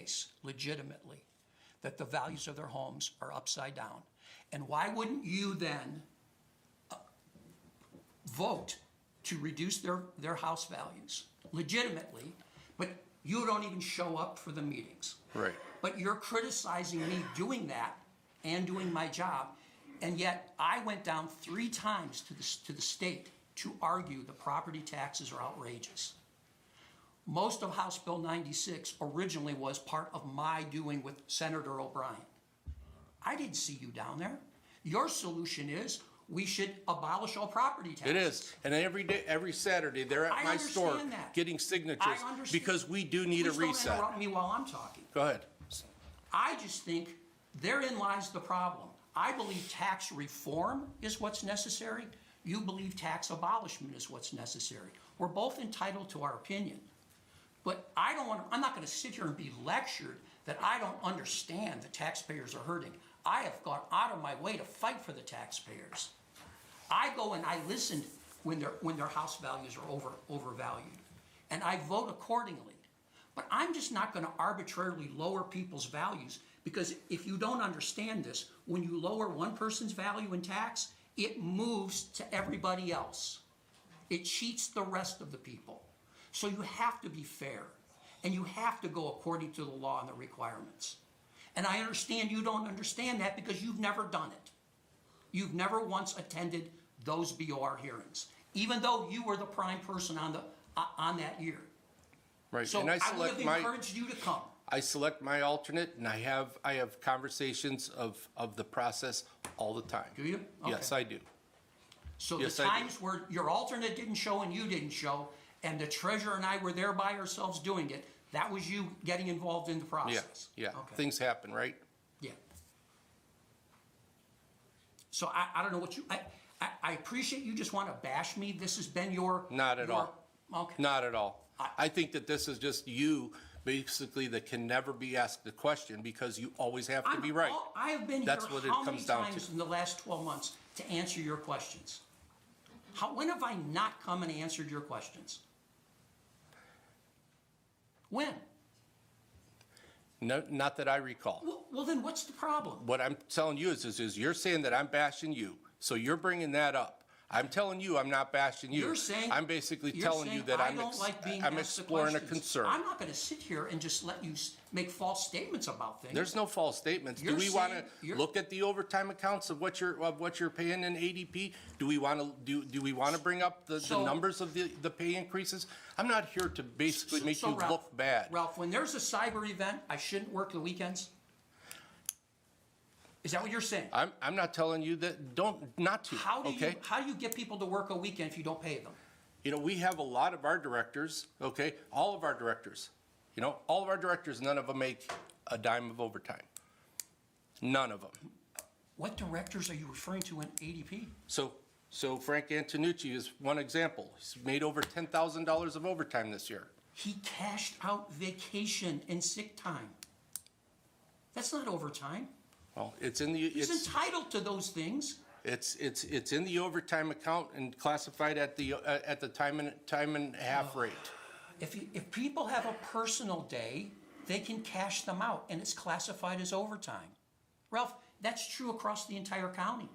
case legitimately that the values of their homes are upside down. And why wouldn't you then uh, vote to reduce their, their house values legitimately, but you don't even show up for the meetings? Right. But you're criticizing me doing that and doing my job, and yet I went down three times to the, s- to the state to argue the property taxes are outrageous. Most of House Bill 96 originally was part of my doing with Senator O'Brien. I didn't see you down there. Your solution is we should abolish all property taxes. It is, and every day, every Saturday, they're I at my store understand that. getting signatures I understand. because we do need a Please don't reset. interrupt me while I'm talking. Go ahead. I just think therein lies the problem. I believe tax reform is what's necessary. You believe tax abolishment is what's necessary. We're both entitled to our opinion. But I don't want, I'm not going to sit here and be lectured that I don't understand the taxpayers are hurting. I have gone out of my way to fight for the taxpayers. I go and I listen when their, when their house values are over, overvalued, and I vote accordingly. But I'm just not gonna arbitrarily lower people's values, because if you don't understand this, when you lower one person's value in tax, it moves to everybody else. It cheats the rest of the people. So you have to be fair, and you have to go according to the law and the requirements. And I understand you don't understand that because you've never done it. You've never once attended those BOR hearings, even though you were the prime person on the, uh, on that year. Right, So and I I would select have my, encouraged you to come. I select my alternate, and I have, I have conversations of, of the process all the time. Do you? Yes, Okay. I do. So the yes, I do. times where your alternate didn't show and you didn't show, and the treasurer and I were there by ourselves doing it, that was you getting involved in the Yeah, process. yeah, Okay. things happen, right? Yeah. So I, I don't know what you, I, I, I appreciate you just want to bash me. This has been your. Not at your- Okay. Not at all. I think that this is just you, basically, that can never be asked the question because you always have to I'm be right. all- I have been here That's what it how many comes down to. times in the last 12 months to answer your questions? How, when have I not come and answered your questions? When? No, not that I recall. Well, well, then what's the problem? What I'm telling you is, is, is you're saying that I'm bashing you, so you're bringing that up. I'm telling you, I'm not bashing you. You're saying. I'm basically you're telling you saying that I I'm, don't ex- like being I'm asked the exploring a questions. concern. I'm not gonna sit here and just let you s- make false statements about things. There's no false statements. Do You're we want saying- to you're- look at the overtime accounts of what you're, of what you're paying in ADP? Do we want to, do, do we want to bring up the, the So- numbers of the, the pay increases? I'm not here to basically So- make so you Ralph- look bad. Ralph, when there's a cyber event, I shouldn't work the weekends? Is that what you're saying? I'm, I'm not telling you that, don't, not to, How do you, okay? how do you get people to work a weekend if you don't pay them? You know, we have a lot of our directors, okay, all of our directors, you know, all of our directors, none of them make a dime of overtime. None of them. What directors are you referring to in ADP? So, so Frank Antonucci is one example. He's made over ten thousand dollars of overtime this year. He cashed out vacation and sick time. That's not overtime. Well, it's in the, He's it's, entitled to those things. it's, it's, it's in the overtime account and classified at the, uh, at the time and, time and a half rate. If, you- if people have a personal day, they can cash them out and it's classified as overtime. Ralph, that's true across the entire county.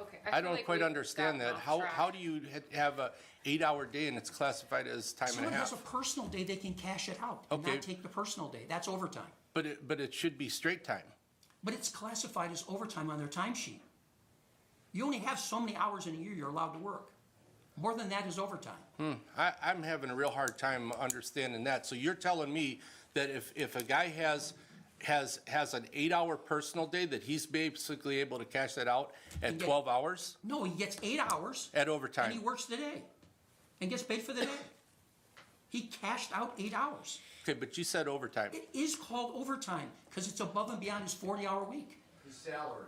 Okay. I feel don't like quite we've understand gotten that. off How, track. how do you ha- have a eight-hour day and it's classified as time and a Someone has half? a personal day, they can cash it out and Okay. not take the personal day. That's overtime. But it, but it should be straight time. But it's classified as overtime on their timesheet. You only have so many hours in a year you're allowed to work. More than that is overtime. I, I'm having a real hard time understanding that. So you're telling me that if, if a guy has, has, has an eight-hour personal day, that he's basically able to cash that out at get- twelve hours No, he gets eight hours at and he overtime? works the day and gets paid for the day. He cashed out eight hours. Okay, but you said overtime. It is called overtime because it's above and beyond his 40 hour week. His salary,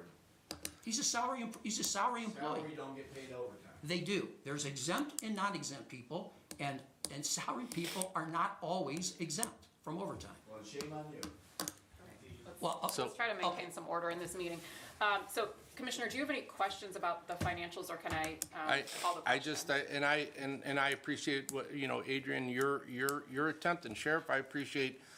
He's a salary, em- he's a salary employee. salary don't get paid overtime. They do. There's exempt and non-exempt people and, and salary people are not always exempt from overtime. Well, shame on you. Well, uh, So- Let's try to maintain some order in this meeting. Um, So Commissioner, do you have any questions about the financials, or can I um, I, call the question? I just, I- and I, and, and I appreciate what, you know, Adrian, your, your, your attempt, and Sheriff, I appreciate